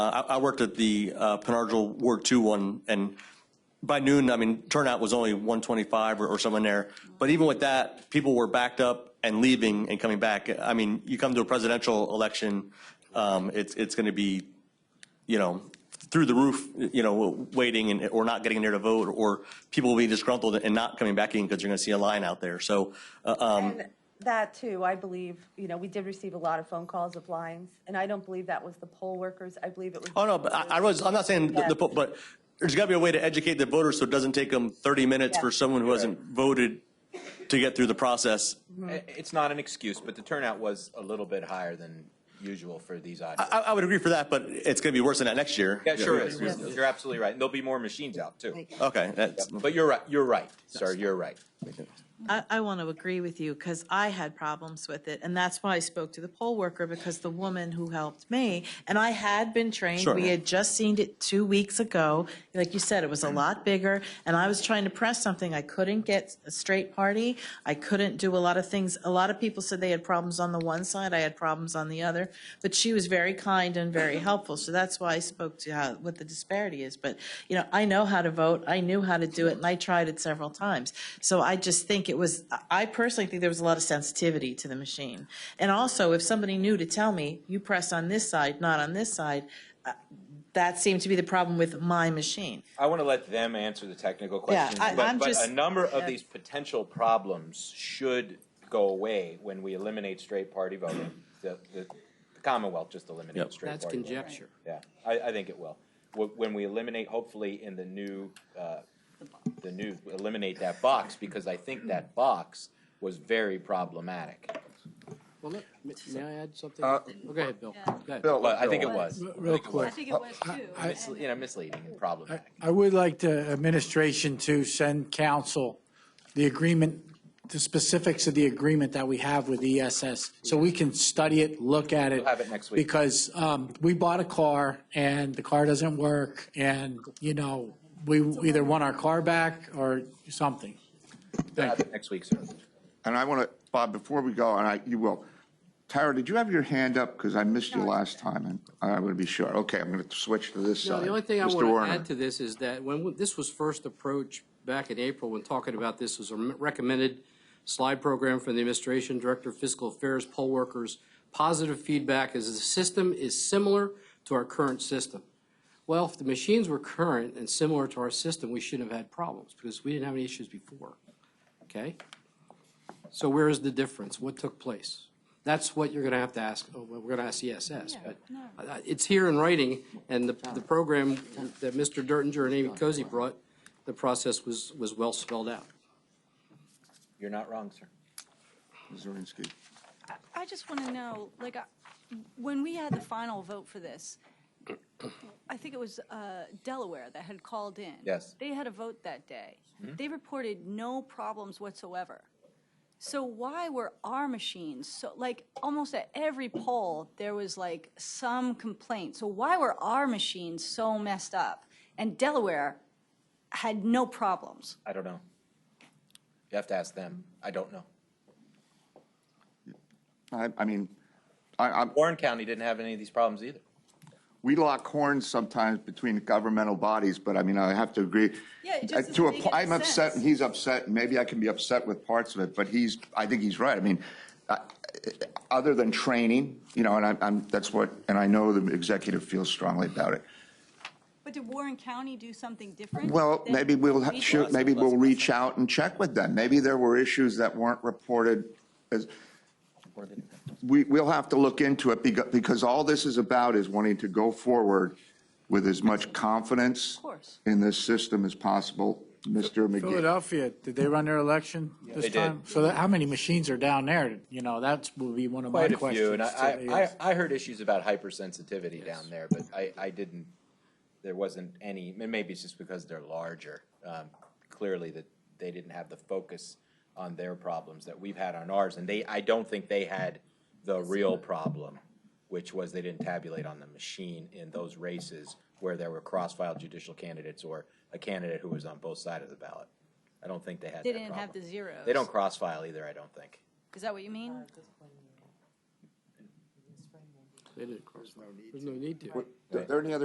Uh, I I worked at the uh, Penargil Ward 2 one, and by noon, I mean, turnout was only 125 or- or someone there. But even with that, people were backed up and leaving and coming back. I mean, you come to a presidential election, um, it's, it's going to be, you know, through the roof, you know, waiting and, or not getting there to vote, or people will be disgruntled and not coming back in because you're going to see a line out there. So uh, um, And that too, I believe, you know, we did receive a lot of phone calls of lines, and I don't believe that was the poll workers. I believe it was. Oh, no, but I, I was, I'm not saying, the- the, but there's got to be a way to educate the voters so it doesn't take them 30 minutes for Yeah. someone who hasn't voted to get through the process. I- It's not an excuse, but the turnout was a little bit higher than usual for these audiences. I, I would agree for that, but it's going to be worse than that next year. Yeah, sure is. Yeah. You're absolutely right. And there'll be more machines out too. Okay, that's, But you're right, you're right, sir, you're right. I, I want to agree with you because I had problems with it. And that's why I spoke to the poll worker because the woman who helped me, and I had been trained, Sure. we had just seen it two weeks ago. Like you said, it was a lot bigger. And I was trying to press something. I couldn't get a straight party. I couldn't do a lot of things. A lot of people said they had problems on the one side. I had problems on the other. But she was very kind and very helpful. So that's why I spoke to how, what the disparity is. But, you know, I know how to vote. I knew how to do it and I tried it several times. So I just think it was, I- I personally think there was a lot of sensitivity to the machine. And also, if somebody knew to tell me, you press on this side, not on this side, uh, that seemed to be the problem with my machine. I want to let them answer the technical Yeah, questions. I- But I'm but just- a number of yeah. these potential problems should go away when we eliminate straight party voting. The the- the Commonwealth just eliminated straight That's party voting. conjecture. Yeah, I, I think it will. Wh- When we eliminate, hopefully in the new, uh, the new, eliminate that box, because I think that box was very problematic. Well, let, may- may I add something? Oh, Go ahead, Bill. Go ahead. Well, I think it was, Real quick, think it was too. I, Misle- you know, misleading and problematic. I would like the administration to send council the agreement, the specifics of the agreement that we have with ESS, so we can study it, look at it. We'll have it next week. Because um, we bought a car, and the car doesn't work, and, you know, we either want our car back or something. Thank you. Uh, Next week, sir. And I want to, Bob, before we go, and I, you will, Tara, did you have your hand up? Because I missed you last time, and I want to be sure. Okay, I'm going to switch to this No, side. the only thing I Mr. want to Warner. add to this is that when w- this was first approached back in April, when talking about this was a m- recommended slide program from the administration, director of fiscal affairs, poll workers, positive feedback is the system is similar to our current system. Well, if the machines were current and similar to our system, we shouldn't have had problems because we didn't have any issues before. Okay? So where is the difference? What took place? That's what you're going to have to ask. oh, well, We're going to ask ESS, but uh, it's here in writing, and the, the program that Mr. Dertinger and Amy Cozy brought, the process was, was well spelled out. You're not wrong, sir. Zirinsky. I just want to know, like, I- when we had the final vote for this, I think it was uh, Delaware that had called in. Yes. They had a vote that day. They reported no problems whatsoever. So why were our machines, so, like, almost at every poll, there was like some complaint. So why were our machines so messed up? And Delaware had no problems. I don't know. You have to ask them. I don't know. I, I mean, I, I'm, Warren County didn't have any of these problems either. we lock horns sometimes between governmental bodies, but I mean, I have to agree. Yeah, it just Uh, doesn't to a make po- any I'm upset, sense. and he's upset, and maybe I can be upset with parts of it, but he's, I think he's right. I mean, uh, other than training, you know, and I'm, I'm, that's what, and I know the executive feels strongly about it. But did Warren County do something different? Well, than maybe we'll, we ha- did? shoot, maybe we'll reach out and check with them. Maybe there were issues that weren't reported as, we, we'll have to look into it because, because all this is about is wanting to go forward with as much confidence course. in this system as possible. Mr. McGee, Philadelphia, did they run their election They this did. time? So that- how many machines are down there? You know, that will be one of my Quite a questions. few, and to I, I, AES. I I heard issues about hypersensitivity down there, but I, I didn't, there wasn't any, and maybe it's just because they're larger. Um, Clearly that they didn't have the focus on their problems that we've had on ours, and they, I don't think they had the real problem, which was they didn't tabulate on the machine in those races where there were cross-file judicial candidates or a candidate who was on both sides of the ballot. I don't think they had that They didn't have the problem. zeros. They don't cross-file either, I don't think. Is that what you mean? They didn't cross. There's no need to. Are there any other